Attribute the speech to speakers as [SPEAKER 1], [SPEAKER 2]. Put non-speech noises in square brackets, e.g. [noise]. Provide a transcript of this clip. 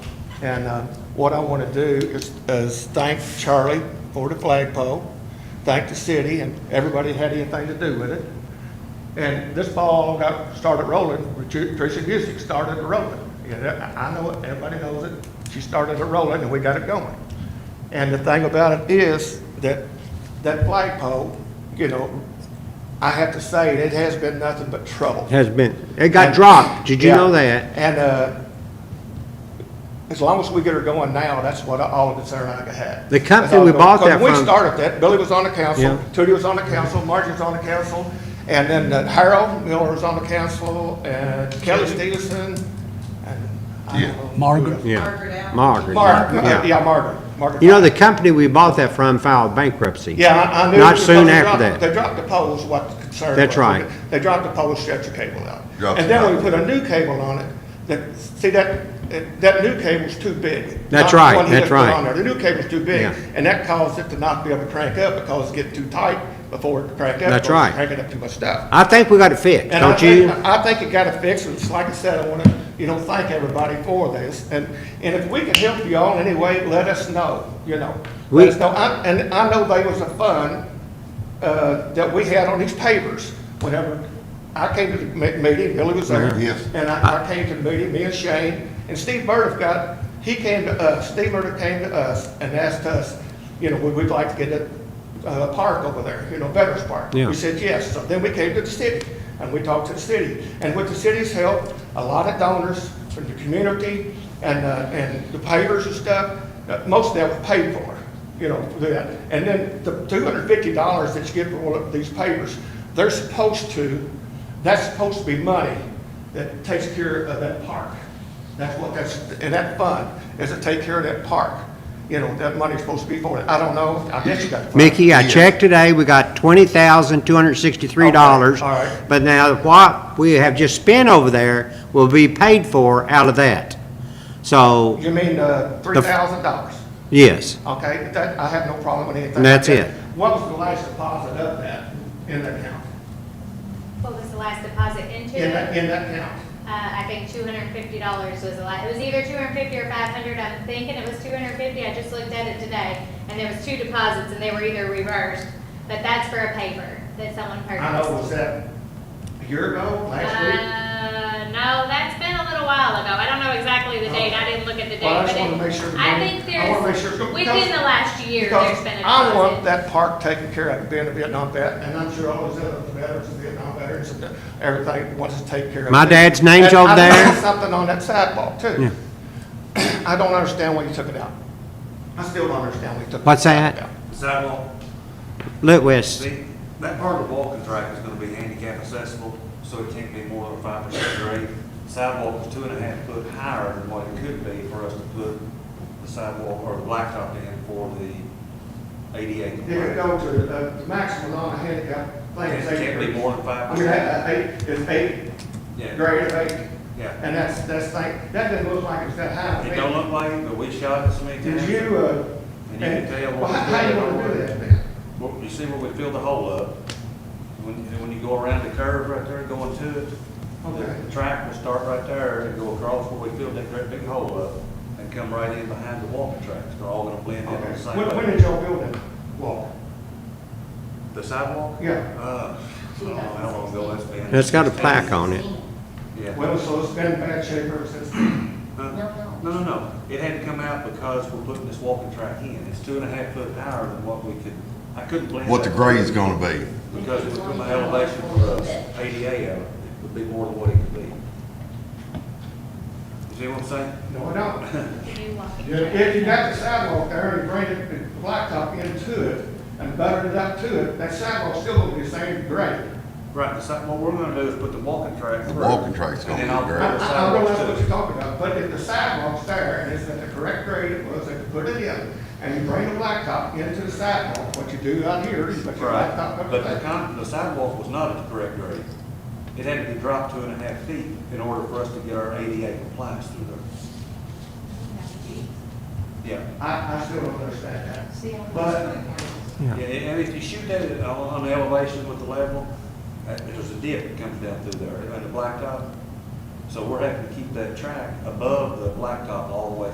[SPEAKER 1] And uh, what I want to do is- is thank Charlie for the flagpole, thank the city and everybody that had anything to do with it. And this ball got, started rolling, Tr- Tricia Busick started it rolling. Yeah, that- I I know it, everybody knows it. She started it rolling and we got it going. And the thing about it is that, that flagpole, you know, I have to say, it has been nothing but trouble.
[SPEAKER 2] Has been. It got dropped. Did you
[SPEAKER 1] Yeah.
[SPEAKER 2] know that?
[SPEAKER 1] And, uh, as long as we get her going now, that's what all of it's there I have.
[SPEAKER 2] The company we bought that
[SPEAKER 1] Because
[SPEAKER 2] from-
[SPEAKER 1] we started that, Billy was on the
[SPEAKER 2] Yeah.
[SPEAKER 1] council, Tootie was on the council, Margie was on the council, and then uh, Harold Miller was on the council, and Kelly Stevenson, and I don't know. who
[SPEAKER 3] Margaret.
[SPEAKER 1] else.
[SPEAKER 2] Yeah.
[SPEAKER 4] Margaret Allen.
[SPEAKER 2] Margaret.
[SPEAKER 1] Margaret,
[SPEAKER 2] yeah.
[SPEAKER 1] uh, yeah, Margaret, Margaret.
[SPEAKER 2] You know, the company we bought that from filed bankruptcy.
[SPEAKER 1] Yeah, I I knew.
[SPEAKER 2] Not
[SPEAKER 1] because
[SPEAKER 2] soon
[SPEAKER 1] they
[SPEAKER 2] after
[SPEAKER 1] dropped-
[SPEAKER 2] that.
[SPEAKER 1] They dropped the poles, what the concern was.
[SPEAKER 2] That's right.
[SPEAKER 1] They dropped the poles, stretched the cable out.
[SPEAKER 5] Dropped
[SPEAKER 1] And
[SPEAKER 5] the
[SPEAKER 1] then we
[SPEAKER 5] cable.
[SPEAKER 1] put a new cable on it, that, see, that, that new cable's too big.
[SPEAKER 2] That's
[SPEAKER 1] Not the
[SPEAKER 2] right,
[SPEAKER 1] one he
[SPEAKER 2] that's
[SPEAKER 1] just put
[SPEAKER 2] right.
[SPEAKER 1] on there. The new cable's too big,
[SPEAKER 2] Yeah.
[SPEAKER 1] and that caused it to not be able to crank up because it get too tight before it cranked up.
[SPEAKER 2] That's
[SPEAKER 1] because it
[SPEAKER 2] right.
[SPEAKER 1] Cranking up too much stuff.
[SPEAKER 2] I think we got it fixed,
[SPEAKER 1] And I
[SPEAKER 2] don't
[SPEAKER 1] think,
[SPEAKER 2] you?
[SPEAKER 1] I think it got to fix, and it's like I said, I want to, you know, thank everybody for this. And, and if we can help you all in any way, let us know, you know.
[SPEAKER 2] We-
[SPEAKER 1] Let us know. I- And I know there was a fund uh, that we had on these pavers whenever I came to the me- meeting, Billy was there.
[SPEAKER 2] Mm-hmm.
[SPEAKER 5] Yes.
[SPEAKER 1] And I, I came to the meeting, me and Shane, and Steve Burdick got, he came to us, Steve Burdick came to us and asked us, you know, would we like to get a uh, park over there, you know, Veterans Park?
[SPEAKER 2] Yeah.
[SPEAKER 1] We said yes. So then we came to the city and we talked to the city. And with the city's help, a lot of donors from the community and, uh, and the pavers and stuff, uh, most of that was paid for, you know, for that. And then the two hundred and fifty dollars that you get for all of these pavers, they're supposed to, that's supposed to be money that takes care of that park. That's what that's, and that fund is to take care of that park. You know, that money's supposed to be for it. I don't know. I guess you got. the fund.
[SPEAKER 2] Mickey, I
[SPEAKER 5] Yeah.
[SPEAKER 2] checked today, we got twenty thousand, two hundred and sixty-three dollars.
[SPEAKER 1] Okay, all right.
[SPEAKER 2] But now what we have just spent over there will be paid for out of that. So,
[SPEAKER 1] You mean, uh, three thousand dollars,
[SPEAKER 2] yes,
[SPEAKER 1] okay? That, I have no problem with anything.
[SPEAKER 2] And that's
[SPEAKER 1] like
[SPEAKER 2] it.
[SPEAKER 1] that. What was the last deposit of that in that account?
[SPEAKER 6] What was the last deposit into?
[SPEAKER 1] In that, in that account?
[SPEAKER 6] Uh, I think two hundred and fifty dollars was the last, it was either two hundred and fifty or five hundred, I'm thinking it was two hundred and fifty, I just looked at it today. And there was two deposits and they were either reversed, but that's for a paper that someone purchased.
[SPEAKER 1] I know, was that a year ago, last week?
[SPEAKER 6] Uh, no, that's been a little while ago. I don't know exactly the date. I didn't look at the date.
[SPEAKER 1] Well, I just
[SPEAKER 6] but it-
[SPEAKER 1] wanna make sure the
[SPEAKER 6] I
[SPEAKER 1] money-
[SPEAKER 6] think
[SPEAKER 1] I wanna make sure it's
[SPEAKER 6] there's,
[SPEAKER 1] gonna-
[SPEAKER 6] within the last year,
[SPEAKER 1] Because
[SPEAKER 6] there's been a
[SPEAKER 1] I want
[SPEAKER 6] deposit.
[SPEAKER 1] that park taken care of, being a Vietnam vet, and I'm sure all those other veterans, Vietnam veterans, and everything wants to take care of.
[SPEAKER 2] My
[SPEAKER 1] it.
[SPEAKER 2] dad's name's
[SPEAKER 1] And
[SPEAKER 2] over
[SPEAKER 1] I
[SPEAKER 2] there.
[SPEAKER 1] noticed Something on that sidewalk too. [clears throat] I don't understand why you took it out. I still don't understand why you took.
[SPEAKER 2] What's
[SPEAKER 1] the sidewalk
[SPEAKER 2] that?
[SPEAKER 1] out.
[SPEAKER 7] Sidewalk,
[SPEAKER 2] Litwest,
[SPEAKER 7] see, that part of the walking track is gonna be handicap accessible, so it can't be more than five percent grade. Sidewalk is two and a half foot higher than what it could be for us to put the sidewalk or the blacktop in for the ADA.
[SPEAKER 1] It would
[SPEAKER 7] compliant.
[SPEAKER 1] go to, uh, the maximum on a handicap
[SPEAKER 7] And
[SPEAKER 1] thing.
[SPEAKER 7] It can't be more than
[SPEAKER 1] I
[SPEAKER 7] five
[SPEAKER 1] mean,
[SPEAKER 7] percent.
[SPEAKER 1] that, that eight, it's eight,
[SPEAKER 7] Yeah,
[SPEAKER 1] grade of eight,
[SPEAKER 7] yeah.
[SPEAKER 1] and that's, that's like, that didn't look like it's that high. to
[SPEAKER 7] It
[SPEAKER 1] me.
[SPEAKER 7] don't look like, it, but we shot it so many times.
[SPEAKER 1] Did you, uh,
[SPEAKER 7] And you can tell.
[SPEAKER 1] and, well,
[SPEAKER 7] what
[SPEAKER 1] how, how you
[SPEAKER 7] we're
[SPEAKER 1] wanna do
[SPEAKER 7] doing.
[SPEAKER 1] that then?
[SPEAKER 7] Well, you see where we filled the hole up? When, and when you go around the curve right there going to it,
[SPEAKER 1] Okay.
[SPEAKER 7] the- the track will start right there and go across where we filled that great big hole up and come right in behind the walking tracks. They're all gonna blend in on the
[SPEAKER 1] Okay.
[SPEAKER 7] same
[SPEAKER 1] When, when
[SPEAKER 7] way.
[SPEAKER 1] did y'all build that wall?
[SPEAKER 7] The sidewalk?
[SPEAKER 1] Yeah.
[SPEAKER 7] Uh, I don't know how long ago that's been.
[SPEAKER 2] that's got a plaque on it.
[SPEAKER 7] Yeah.
[SPEAKER 1] Well, so it's been in bad shape ever since then.
[SPEAKER 7] Huh? No, no, no. It had to come out because we're putting this walking track in. It's two and a half foot higher than what we could, I couldn't blend.
[SPEAKER 5] what the
[SPEAKER 7] that.
[SPEAKER 5] grade's gonna be.
[SPEAKER 7] Because it from the elevation for us, ADA, out, it would be more than what it could be. You see what I'm saying?
[SPEAKER 1] No, I don't.
[SPEAKER 6] Can you walk it?
[SPEAKER 1] If if you got the sidewalk there and you bring it, the blacktop into it and buttered it up to it, that sidewalk's still gonna be the same grade.
[SPEAKER 7] Right, the side, what we're gonna do is put the walking track
[SPEAKER 5] The
[SPEAKER 7] through.
[SPEAKER 5] walking track's gonna
[SPEAKER 7] and then
[SPEAKER 5] be
[SPEAKER 7] I'll
[SPEAKER 5] great.
[SPEAKER 1] I, I I
[SPEAKER 7] put the
[SPEAKER 1] don't
[SPEAKER 7] sidewalks
[SPEAKER 1] know what
[SPEAKER 7] to
[SPEAKER 1] you're
[SPEAKER 7] it.
[SPEAKER 1] talking about, but if the sidewalk's there and it's at the correct grade it was, and you put it in, and you bring the blacktop into the sidewalk, what you do out here is put your
[SPEAKER 7] Right,
[SPEAKER 1] blacktop up
[SPEAKER 7] but the
[SPEAKER 1] there.
[SPEAKER 7] con, the sidewalk was not at the correct grade. It had to be dropped two and a half feet in order for us to get our ADA compliance through there. Yeah.
[SPEAKER 1] I, I still don't understand that.
[SPEAKER 7] Yeah, and if you shoot that at- on on the elevation with the level, uh, there's a dip that comes down through there, and the blacktop. So we're having to keep that track above the blacktop all the way